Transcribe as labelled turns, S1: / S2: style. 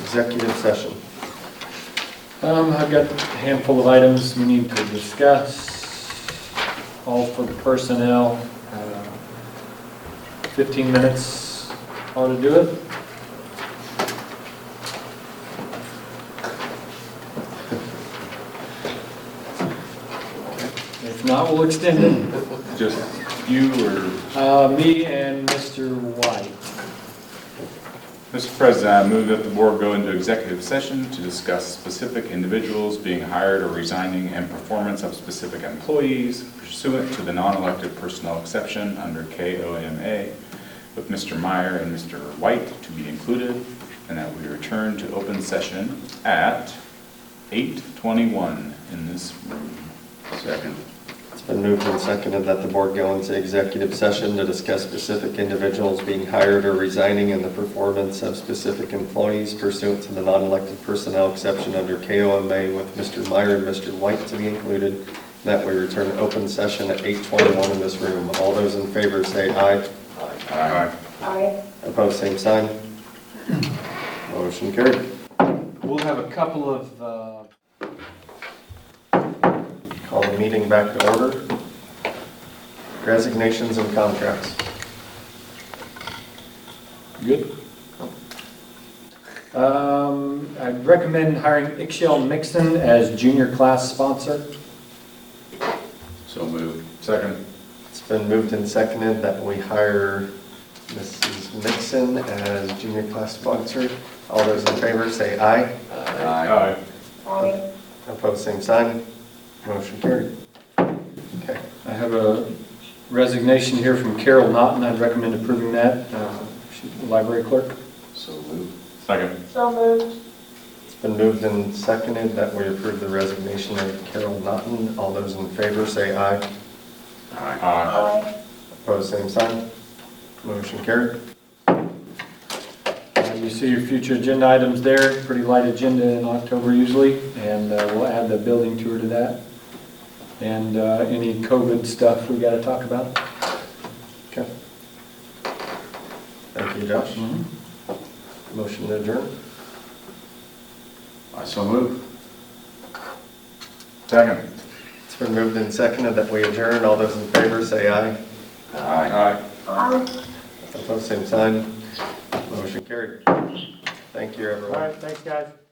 S1: executive session.
S2: Um, I've got a handful of items we need to discuss, all for personnel. Uh, Fifteen minutes ought to do it. If not, we'll extend it.
S3: Just you or,
S2: Uh, me and Mr. White.
S3: Mr. President, I move that the board go into executive session to discuss specific individuals being hired or resigning and performance of specific employees pursuant to the non-elected personnel exception under KOMA with Mr. Meyer and Mr. White to be included, and that we return to open session at 8:21 in this room. Second.
S1: It's been moved and seconded that the board go into executive session to discuss specific individuals being hired or resigning and the performance of specific employees pursuant to the non-elected personnel exception under KOMA with Mr. Meyer and Mr. White to be included, that we return to open session at 8:21 in this room. All those in favor say aye.
S3: Aye.
S4: Aye.
S1: Opposed, same sign. Motion carried.
S2: We'll have a couple of, uh,
S1: Call the meeting back to order. Resignations and contracts.
S2: Good. Um, I recommend hiring Ixchel Mixon as junior class sponsor.
S3: So moved. Second.
S1: It's been moved and seconded that we hire Mrs. Nixon as junior class sponsor. All those in favor say aye.
S3: Aye.
S4: Aye.
S1: Opposed, same sign. Motion carried. Okay.
S2: I have a resignation here from Carol Naughton. I'd recommend approving that. Uh, She's the library clerk.
S3: So moved. Second.
S4: So moved.
S1: It's been moved and seconded that we approve the resignation of Carol Naughton. All those in favor say aye.
S3: Aye.
S4: Aye.
S1: Opposed, same sign. Motion carried.
S2: Uh, You see your future agenda items there, pretty light agenda in October usually, and uh, we'll add the building tour to that. And uh, any COVID stuff we gotta talk about.
S1: Okay. Thank you, Josh. Motion to adjourn.
S3: I so move. Second.
S1: It's been moved and seconded that we adjourn. All those in favor say aye.
S3: Aye.
S4: Aye.
S1: Opposed, same sign. Motion carried. Thank you, everyone.
S2: thanks, guys.